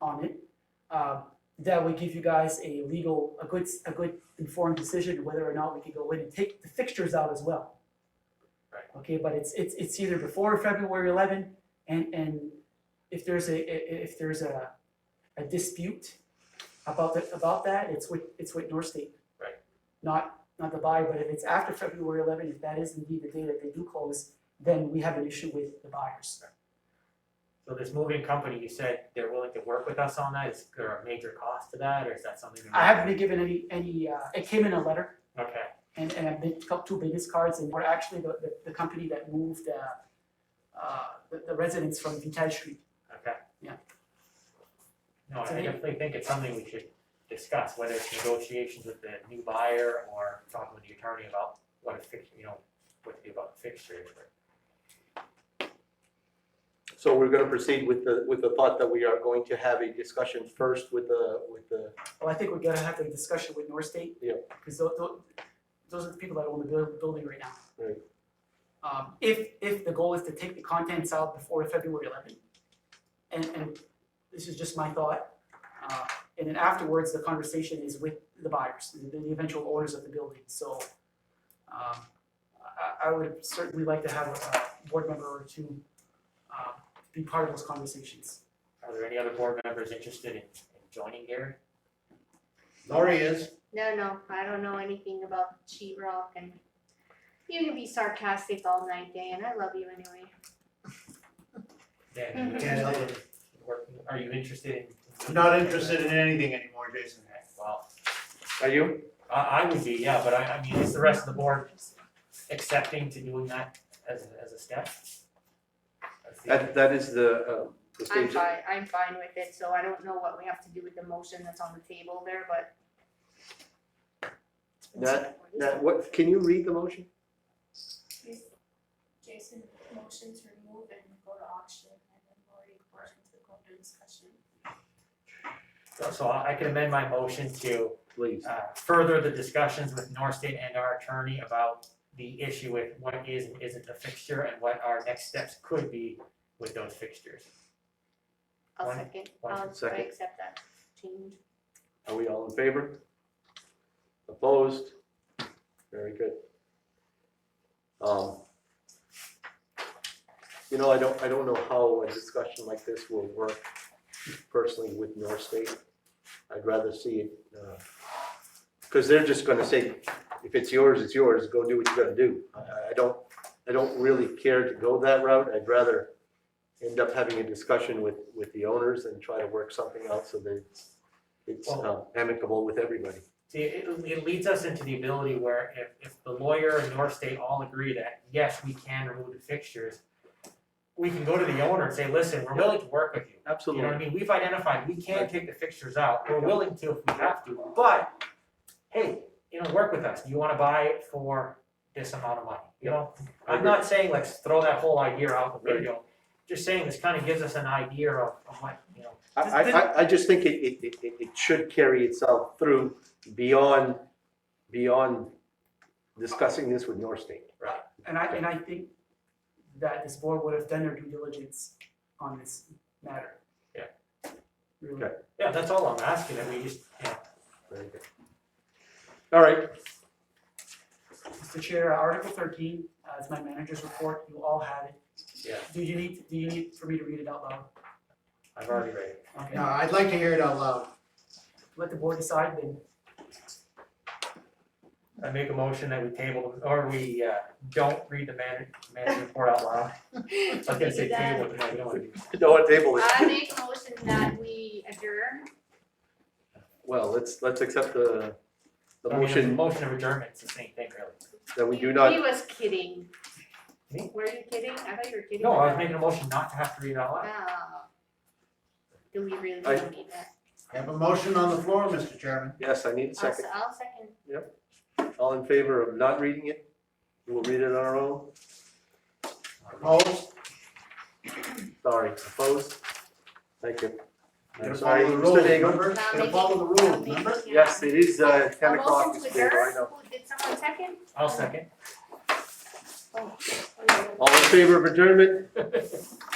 on it, uh, that would give you guys a legal, a good, a good informed decision whether or not we could go in and take the fixtures out as well. Right. Okay, but it's, it's, it's either before February eleven, and, and if there's a, i- i- if there's a, a dispute about that, about that, it's with, it's with North State. Right. Not, not the buyer, but if it's after February eleven, if that is indeed the day that they do close, then we have an issue with the buyers. So this moving company, you said they're willing to work with us on that, is there a major cost to that, or is that something? that- I haven't been given any, any, uh, it came in a letter, Okay, and, and I've been, got two business cards, and we're actually the, the, the company that moved, uh, uh, the, the residents from Vital Street. okay. Yeah. No, I So think- they- definitely think it's something we should discuss, whether it's negotiations with the new buyer or talking with the attorney about what a fix, you know, what to do about fixtures. So we're gonna proceed with the, with the thought that we are going to have a discussion first with the, with the, Well, I think we're gonna have a discussion with North State. Yeah. Cause tho- tho- those are the people that own the buil- building right now. Right. Um, if, if the goal is to take the contents out before February eleventh, and, and this is just my thought, uh, and then afterwards, the conversation is with the buyers, the, the eventual owners of the building, so, um, I, I would certainly like to have a, a board member or two, uh, be part of those conversations. Are there any other board members interested in in joining Gary? Lori is. No, no, I don't know anything about sheetrock and you can be sarcastic all night, Dan. I love you anyway. Dan, you Mhm. interested in working- are you interested in? I'm not interested in anything anymore, Jason. Okay, Well, are you? I, I would be, yeah, but I, I mean, is the rest of the board accepting to doing that as, a- as a step? That's the- That, that is the, um, the I'm stage. fine, I'm fine with it, so I don't know what we have to do with the motion that's on the table there, but. That- Now, what, can you read the motion? Jason motions remove and go to auction, and then Lori motions to go into discussion. So- So I I can amend my motion to Please. uh, further the discussions with North State and our attorney about the issue with what is and isn't a fixture and what our next steps could be with those fixtures. I'll One- second, one I'll, I second. accept that change. Are we all in favor? Opposed? Very good. Um, You know, I don't, I don't know how a discussion like this will work personally with North State. I'd rather see it, because they're just gonna say, if it's yours, it's yours, go do what you're gonna do. I- I, I don't, I don't really care to go that route. I'd rather end up having a discussion with, with the owners and try to work something out so that it's- it's uh, amicable with everybody. See, it, it leads us into the ability where if, if the lawyer and North State all agree that, yes, we can remove the fixtures, we can go to the owner and say, listen, we're willing to work with you. You know what I mean? We've identified, we can take the fixtures out, we're willing to if we have to, but, hey, you know, work with us. Do you wanna buy it for this amount of money, you know? I'm not saying let's throw that whole idea out the window, just saying this kinda gives us an idea of, of what, you know, I, I, I, I just think it, it, it, it- it should carry itself through beyond, beyond discussing this with North State. And I, and I think that this board would have done their due diligence on this matter. Yeah. Really. Okay. yeah, that's all I'm asking, that we just, you know, Very good. All right, Mr. Chair, Article thirteen, uh, is my manager's report, you all have it. Yeah. Do you need, do you need for me to read it out loud? I've already read it. Okay, No, I'd like to hear it out loud. let the board decide then. I make a motion that we table, or we, uh, don't read the man, manager report out loud. I was gonna say table, but no, we don't wanna do that. no one table I it. make motion that we adjourn. Well, let's, let's accept the, the I mean, motion Motion of adjournment, it's the same thing, really. that we He- do He not, was kidding. Me? Were you kidding? I thought you were kidding. No, I was making a motion not to have to read it out loud. Ah. Do we really I- need that? I have a motion on the floor, Mr. Chairman. yes, I need a I'll, second. se- I'll second. All in favor of not reading it? We'll read it on our own. Opposed? Sorry, opposed? Thank you. Gotta I'm sorry, follow the Mr. rules, Daigle. remember? Now Gotta make- follow the I'll rules, make- remember? yeah. Yes, it is, uh, A ten o'clock, motion Mr. to Daigle, I adjourn? know. Who- Did someone second? I'll second. Oh, oh, no. All in favor of adjournment?